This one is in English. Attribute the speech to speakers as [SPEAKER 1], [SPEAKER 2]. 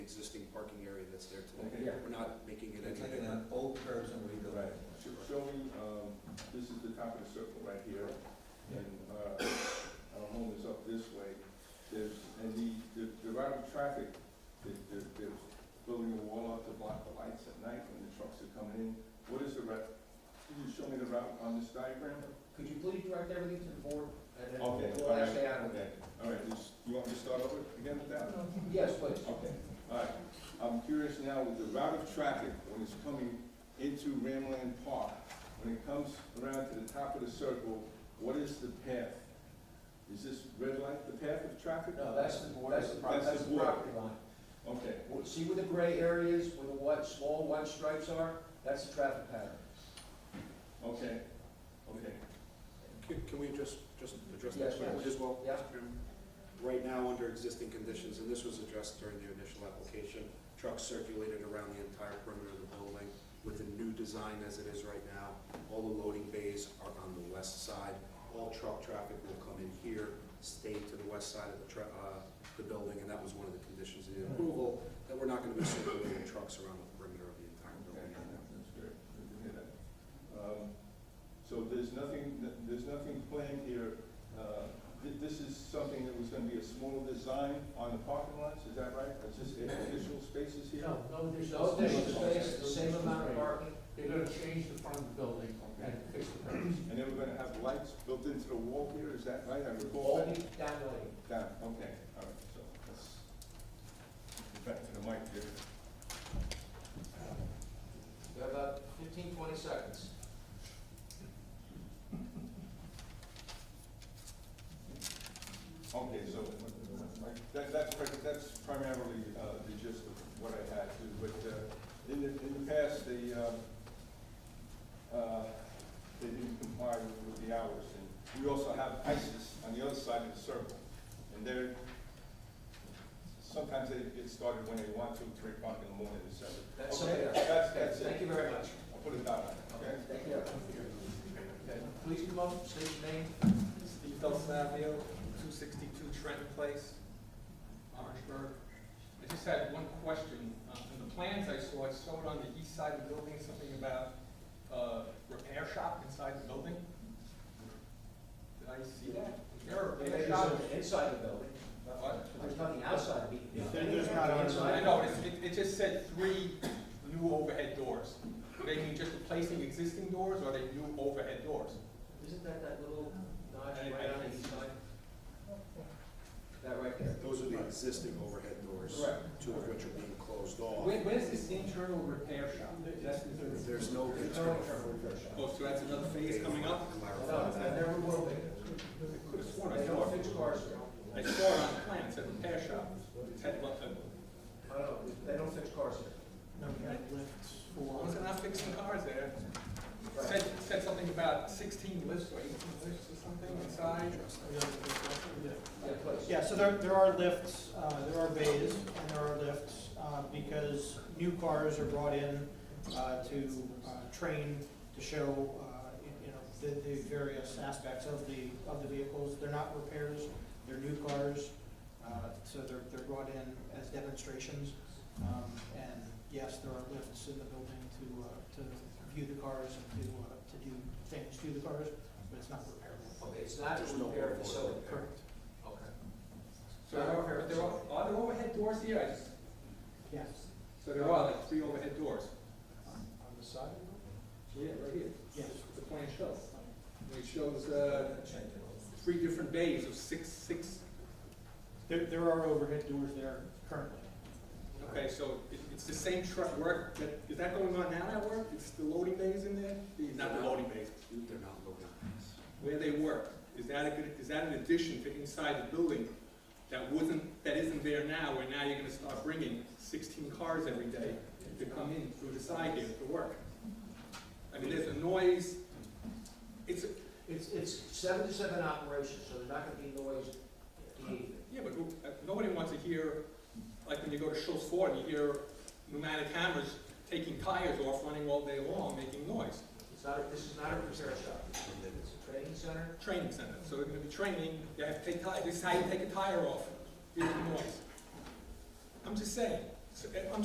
[SPEAKER 1] Yeah.
[SPEAKER 2] We're not making it
[SPEAKER 3] It's like
[SPEAKER 2] anything.
[SPEAKER 3] an old curb and rebuild.
[SPEAKER 1] Right. Show- Showing, um, this is the top of the circle right here, and, uh, our home is up this way. There's, and the, the, the route of traffic, the, the, the building a wall up to block the lights at night when the trucks are coming in. What is the route? Can you show me the route on this diagram?
[SPEAKER 4] Could you please direct everything to the board? and then
[SPEAKER 1] Okay,
[SPEAKER 4] We'll
[SPEAKER 1] all right.
[SPEAKER 4] hash it out.
[SPEAKER 1] Okay, all right, just- you want me to start over again with that?
[SPEAKER 4] Yes, please.
[SPEAKER 1] Okay, all right. I'm curious now with the route of traffic when it's coming into Ramland Park, when it comes around to the top of the circle, what is the path? Is this red light the path of traffic?
[SPEAKER 4] No, that's the, that's the, pro-
[SPEAKER 1] That's
[SPEAKER 4] that's
[SPEAKER 1] the
[SPEAKER 4] the
[SPEAKER 1] board.
[SPEAKER 4] property line.
[SPEAKER 1] Okay,
[SPEAKER 4] Well, See where the gray areas, where the white, small white stripes are? That's the traffic pattern.
[SPEAKER 1] okay, okay.
[SPEAKER 2] Can- Can we just, just address that
[SPEAKER 4] Yes,
[SPEAKER 2] quickly
[SPEAKER 4] yes.
[SPEAKER 2] as well?
[SPEAKER 4] Yeah.
[SPEAKER 2] Right now, under existing conditions, and this was addressed during the initial application, trucks circulated around the entire perimeter of the building with the new design as it is right now. All the loading bays are on the west side. All truck traffic will come in here, stay to the west side of the tra- uh, the building, and that was one of the conditions of the approval, that we're not gonna be circulating trucks around the perimeter of the entire
[SPEAKER 1] Okay,
[SPEAKER 2] building right now.
[SPEAKER 1] that's great, good to hear that. Um, So there's nothing, there's nothing planned here, uh, thi- this is something that was gonna be a small design on the parking lots, is that right? Is this additional spaces here?
[SPEAKER 5] No, no
[SPEAKER 4] There's
[SPEAKER 5] additional
[SPEAKER 4] no additional space,
[SPEAKER 5] space.
[SPEAKER 4] the same amount of parking.
[SPEAKER 5] They're gonna change the front of the building and fix the curves.
[SPEAKER 1] And then we're gonna have lights built into the wall here, is that right? I recall
[SPEAKER 4] All
[SPEAKER 1] that.
[SPEAKER 4] the down lane.
[SPEAKER 1] Down, okay, all right, so let's get back to the mic here.
[SPEAKER 4] You have about 15, 20 seconds.
[SPEAKER 1] Okay, so that, that's, pri- that's primarily uh, the gist of what I had to, but uh, in the, in the past, they, um, uh, they didn't comply with- with the hours. And we also have ISIS on the other side of the circle, and they're, sometimes they get started when they want to, three o'clock in the morning, et cetera.
[SPEAKER 4] That's
[SPEAKER 1] Okay,
[SPEAKER 4] something.
[SPEAKER 1] That's, that's it.
[SPEAKER 4] Thank you very much.
[SPEAKER 1] I'll put it down, okay?
[SPEAKER 4] Thank you. Okay, Please come up, state your name.
[SPEAKER 6] Steve Del Savio, two sixty-two Trenton Place, Orangeburg. I just had one question. Uh, In the plans I saw, it showed on the east side of the building something about uh, repair shop inside the building. Did I see that? Is there a repair
[SPEAKER 4] There's
[SPEAKER 6] shop?
[SPEAKER 4] nothing inside the building.
[SPEAKER 6] What?
[SPEAKER 4] There's nothing outside. of it.
[SPEAKER 5] There's not outside.
[SPEAKER 6] I know, it's- it, it just said three new overhead doors. They mean just replacing existing doors, or are they new overhead doors?
[SPEAKER 4] Isn't that that little notch
[SPEAKER 6] I- I
[SPEAKER 4] right on
[SPEAKER 6] don't
[SPEAKER 4] the east
[SPEAKER 6] see
[SPEAKER 4] side? That right there.
[SPEAKER 2] Those are the existing overhead doors, two of which are being closed off.
[SPEAKER 6] Where, where's this internal repair shop? That's the third.
[SPEAKER 2] There's no
[SPEAKER 4] There's no
[SPEAKER 2] internal
[SPEAKER 4] internal repair shop.
[SPEAKER 6] Oh, so that's another phase coming up?
[SPEAKER 4] No,
[SPEAKER 2] Clarify
[SPEAKER 4] there
[SPEAKER 2] that.
[SPEAKER 4] never will be.
[SPEAKER 6] I could have sworn I
[SPEAKER 4] They
[SPEAKER 6] saw
[SPEAKER 4] don't
[SPEAKER 6] it.
[SPEAKER 4] fix cars here.
[SPEAKER 6] I saw it on the plan, it said repair shop. It had one,
[SPEAKER 4] I
[SPEAKER 6] uh,
[SPEAKER 4] don't know, they don't fix cars here.
[SPEAKER 6] was it not fixing cars there? It
[SPEAKER 4] Right.
[SPEAKER 6] Said, it said something about sixteen lifts or eighteen lifts or something inside.
[SPEAKER 4] Yeah, please.
[SPEAKER 7] Yeah, so there, there are lifts, uh, there are bays, and there are lifts, uh, because new cars are brought in, uh, to, uh, train, to show, uh, you- you know, the, the various aspects of the, of the vehicles. They're not repairs, they're new cars, uh, so they're, they're brought in as demonstrations. Um, and yes, there are lifts in the building to, uh, to view the cars and to, uh, to do things to the cars, but it's not repairable.
[SPEAKER 4] Okay, it's not
[SPEAKER 2] There's
[SPEAKER 4] a
[SPEAKER 2] no
[SPEAKER 4] repair
[SPEAKER 2] overhead
[SPEAKER 4] facility.
[SPEAKER 2] door.
[SPEAKER 7] Correct.
[SPEAKER 4] Okay.
[SPEAKER 6] So there are, are there, are- are there oh, overhead doors here? I just,
[SPEAKER 7] Yes.
[SPEAKER 6] so there are like three overhead doors.
[SPEAKER 7] On the side?
[SPEAKER 6] Yeah, right here.
[SPEAKER 7] Yes.
[SPEAKER 6] The plan shows. It shows, uh, three different bays of six, six,
[SPEAKER 7] There, there are overhead doors there currently.
[SPEAKER 6] okay, so it, it's the same truck work, that, is that going on now at work? It's the loading bays in there? Not the loading bays,
[SPEAKER 2] They're not loading.
[SPEAKER 6] where they work, is that a good, is that an addition to inside the building that wasn't, that isn't there now, where now you're gonna start bringing sixteen cars every day to come in through the side here to work? I mean, there's a noise, it's,
[SPEAKER 4] It's, it's seven to seven operation, so there's not gonna be noise in the evening.
[SPEAKER 6] yeah, but who- uh, nobody wants to hear, like when you go to Schultz Ford, you hear pneumatic hammers taking tires off, running all day long, making noise.
[SPEAKER 4] It's not, a- this is not a repair shop. It's a training center.
[SPEAKER 6] Training center, so they're gonna be training, you have to take tire, this is how you take a tire off, here's the noise. I'm just saying, So, uh, I'm